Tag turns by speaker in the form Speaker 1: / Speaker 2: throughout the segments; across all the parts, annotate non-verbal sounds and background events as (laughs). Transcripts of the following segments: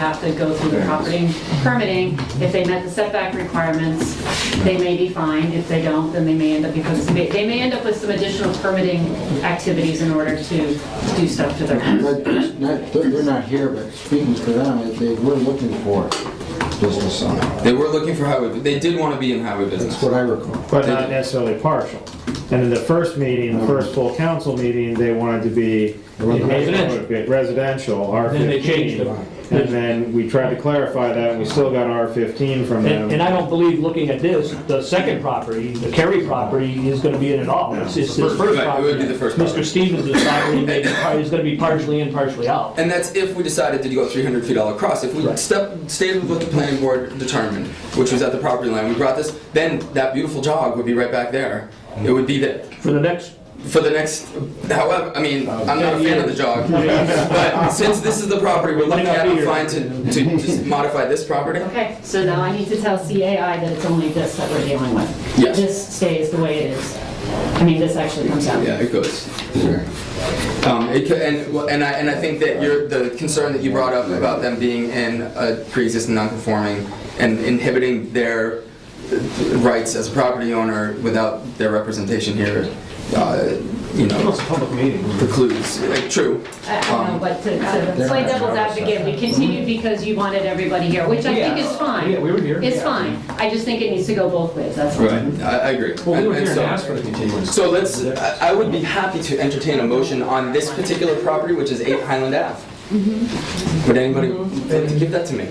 Speaker 1: have to go through the property permitting. If they met the setback requirements, they may be fine. If they don't, then they may end up, because they they may end up with some additional permitting activities in order to do stuff to their house.
Speaker 2: But it's not- They're they're not here, but speaking for them, they were looking for business on.
Speaker 3: They were looking for highway, they did want to be in highway
Speaker 2: That's
Speaker 3: business.
Speaker 2: what I recall.
Speaker 4: but not necessarily partial. And in the first meeting, the first full council meeting, they wanted to be in neighborhood, residential, R
Speaker 5: Then they changed
Speaker 4: fifteen.
Speaker 5: it.
Speaker 4: And then we tried to clarify that, and we still got R fifteen from
Speaker 5: And and I
Speaker 4: them.
Speaker 5: don't believe, looking at this, the second property, the Kerry property, is gonna be in at all. It's it's the first
Speaker 3: Right, it
Speaker 5: property.
Speaker 3: would be the first property.
Speaker 5: Mr. Stevens is probably, maybe, is gonna be partially in, partially out.
Speaker 3: And that's if we decided to go 300 feet all across. If we step, stayed with what the planning board determined, which was at the property line, we brought this, then that beautiful jog would be right back there. It would be that,
Speaker 5: For the next,
Speaker 3: for the next, however, I mean, I'm not a fan of the jog. But since this is the property we're looking at, I'm fine to, to just modify this property.
Speaker 1: Okay, so now I need to tell CAI that it's only this that we're dealing with.
Speaker 3: Yes.
Speaker 1: This stays the way it is. I mean, this actually comes out.
Speaker 3: Yeah, it goes. Um, it could, and, well, and I, and I think that your, the concern that you brought up about them being in a pre-existing non-conforming and inhibiting their rights as a property owner without their representation here, uh, you know,
Speaker 6: public meeting.
Speaker 3: precludes, like, true.
Speaker 1: I I don't know, but to-
Speaker 6: Um,
Speaker 1: to play devil's advocate, we continued because you wanted everybody here, which I think is fine.
Speaker 6: Yeah, we were here.
Speaker 1: It's fine. I just think it needs to go both ways, that's all.
Speaker 3: Right, I, I agree.
Speaker 6: Well, we were
Speaker 3: And- and
Speaker 6: here and
Speaker 3: so-
Speaker 6: asked for the continuance.
Speaker 3: So let's, I I would be happy to entertain a motion on this particular property, which is 8 Highland Ave.
Speaker 6: Mm-hmm.
Speaker 3: Would anybody like to give that to me?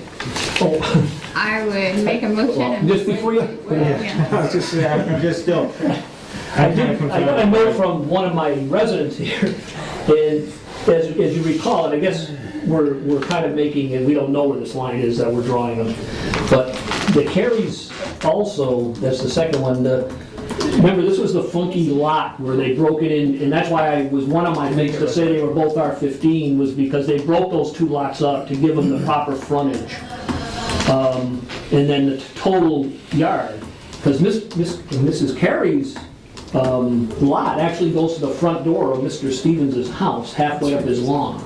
Speaker 7: I would make a motion.
Speaker 5: well,
Speaker 7: and-
Speaker 5: just before you,
Speaker 7: Yeah.
Speaker 4: (laughs) I was just, I'm just still.
Speaker 5: I did, I got a note from one of my residents here, (laughs) and as, as you recall, and I guess we're, we're kind of making, and we don't know where this line is that we're drawing them, but the carries also, that's the second one, the, remember, this was the funky lot where they broke it in, and that's why I was, one of my mates to say they were both R fifteen was because they broke those two lots up to give them the proper frontage. Um, and then the total yard, because Miss, Miss, Mrs. Carey's, um, lot actually goes to the front door of Mr. Stevens' house, halfway up his lawn.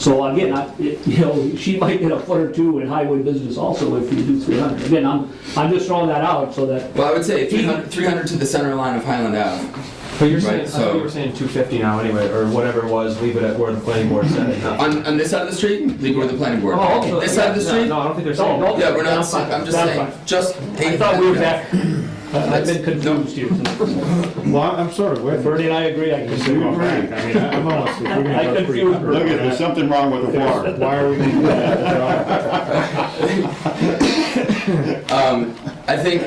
Speaker 5: So again, I, it- you know, she might get a foot or two in highway business also if you do three hundred. Again, I'm, I'm just throwing that out so that,
Speaker 3: Well, I would say 300, 300 to the center line of Highland Ave.
Speaker 6: But you're
Speaker 3: Right,
Speaker 6: saying, I thought
Speaker 3: so-
Speaker 6: you were saying 250 now anyway, or whatever it was, leave it at where the planning board said it. No.
Speaker 3: On, on this side of the street, leave it with the planning board.
Speaker 6: Oh, okay.
Speaker 3: This side of the
Speaker 6: No,
Speaker 3: street?
Speaker 6: No, I don't think they're saying.
Speaker 5: Oh, okay.
Speaker 3: Yeah, we're not,
Speaker 5: That's fine.
Speaker 3: I'm just
Speaker 5: That's
Speaker 3: saying,
Speaker 5: fine.
Speaker 3: just.
Speaker 5: I thought we were back, I- I've been
Speaker 3: No.
Speaker 5: confused here.
Speaker 4: Well, I'm sort of with.
Speaker 5: Bernie and I agree, I
Speaker 4: We
Speaker 5: can,
Speaker 4: were right. I mean, I'm almost, if we're
Speaker 5: I
Speaker 4: gonna go
Speaker 5: confused.
Speaker 4: free.
Speaker 5: Bernie.
Speaker 8: Look at, there's something wrong with the water.
Speaker 4: Why are we gonna do
Speaker 5: (laughs)
Speaker 4: that?
Speaker 3: (laughs) Um, I think,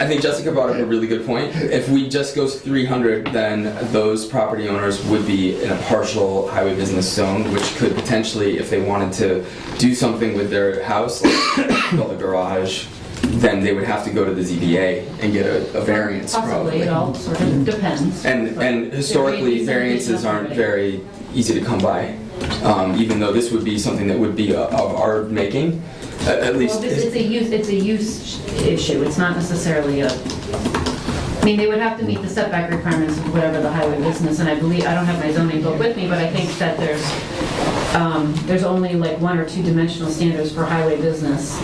Speaker 3: I think Jessica brought up a really good point. If we just go 300, then those property owners would be in a partial highway business zone, which could potentially, if they wanted to do something with their house, (coughs) like build a garage, then they would have to go to the ZBA and get a, a variance
Speaker 1: Possibly,
Speaker 3: probably.
Speaker 1: it all sort of depends.
Speaker 3: And, and historically, variances aren't very easy to come by, um, even though this would be something that would be uh, of our making, at, at
Speaker 1: Well,
Speaker 3: least.
Speaker 1: this- it's a use, it's a use sh- issue, it's not necessarily a, I mean, they would have to meet the setback requirements of whatever the highway business, and I believe, I don't have my zoning book with me, but I think that there's, um, there's only like one or two dimensional standards for highway business.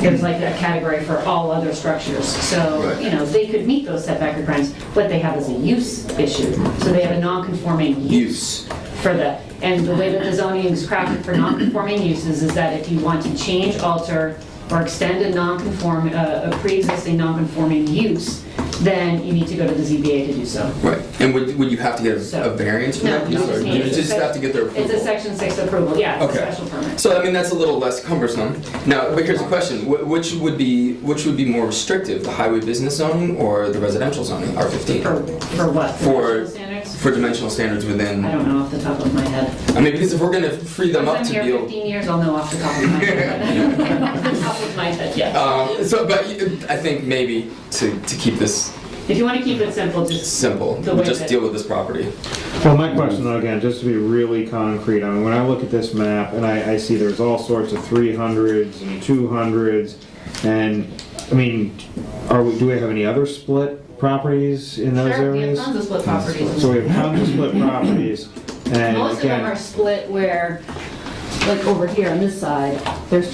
Speaker 1: There's like a category for all other structures, so,
Speaker 3: Right.
Speaker 1: you know, they could meet those setback requirements, what they have is a use issue, so they have a non-conforming use
Speaker 3: Use.
Speaker 1: for the, and the way that the zoning is crafted for non-conforming uses is that if you want to change, alter, or extend a non-conform, a a pre-existing non-conforming use, then you need to go to the ZBA to do so.
Speaker 3: Right, and would, would you have to get a
Speaker 1: So-
Speaker 3: a variance for
Speaker 1: No,
Speaker 3: that?
Speaker 1: you
Speaker 3: piece,
Speaker 1: just
Speaker 3: or
Speaker 1: need
Speaker 3: You
Speaker 1: it.
Speaker 3: just have to get their
Speaker 1: It's a
Speaker 3: approval.
Speaker 1: section six approval, yeah, it's a
Speaker 3: Okay.
Speaker 1: special permit.
Speaker 3: So I mean, that's a little less cumbersome. Now, but here's a question, Wh- which would be, which would be more restrictive, the highway business zoning or the residential zoning, R fifteen?
Speaker 1: For, for what?
Speaker 3: For-
Speaker 1: dimensional standards?
Speaker 3: For dimensional standards within,
Speaker 1: I
Speaker 3: I
Speaker 1: don't know off the top of my head.
Speaker 3: mean, because if we're gonna free them up
Speaker 1: Since
Speaker 3: to
Speaker 1: I'm
Speaker 3: be
Speaker 1: here
Speaker 3: able.
Speaker 1: 15 years, I'll know off the top of my
Speaker 3: (laughs)
Speaker 1: head. Off the top of my head, yeah.
Speaker 3: Um, so, but you- I think maybe to, to keep this
Speaker 1: If you want to keep it simple, just
Speaker 3: simple,
Speaker 1: The
Speaker 3: we'll
Speaker 1: way
Speaker 3: just
Speaker 1: that-
Speaker 3: deal with this property.
Speaker 4: Well, my question though, again, just to be really concrete, I mean, when I look at this map and I, I see there's all sorts of three hundreds and two hundreds, and, I mean, are we, do we have any other split properties in those
Speaker 1: Sure, we have
Speaker 4: areas?
Speaker 1: tons of split properties.
Speaker 4: So we have tons of split properties, and
Speaker 1: Most of them are
Speaker 4: again,
Speaker 1: split where like over here on this side, there's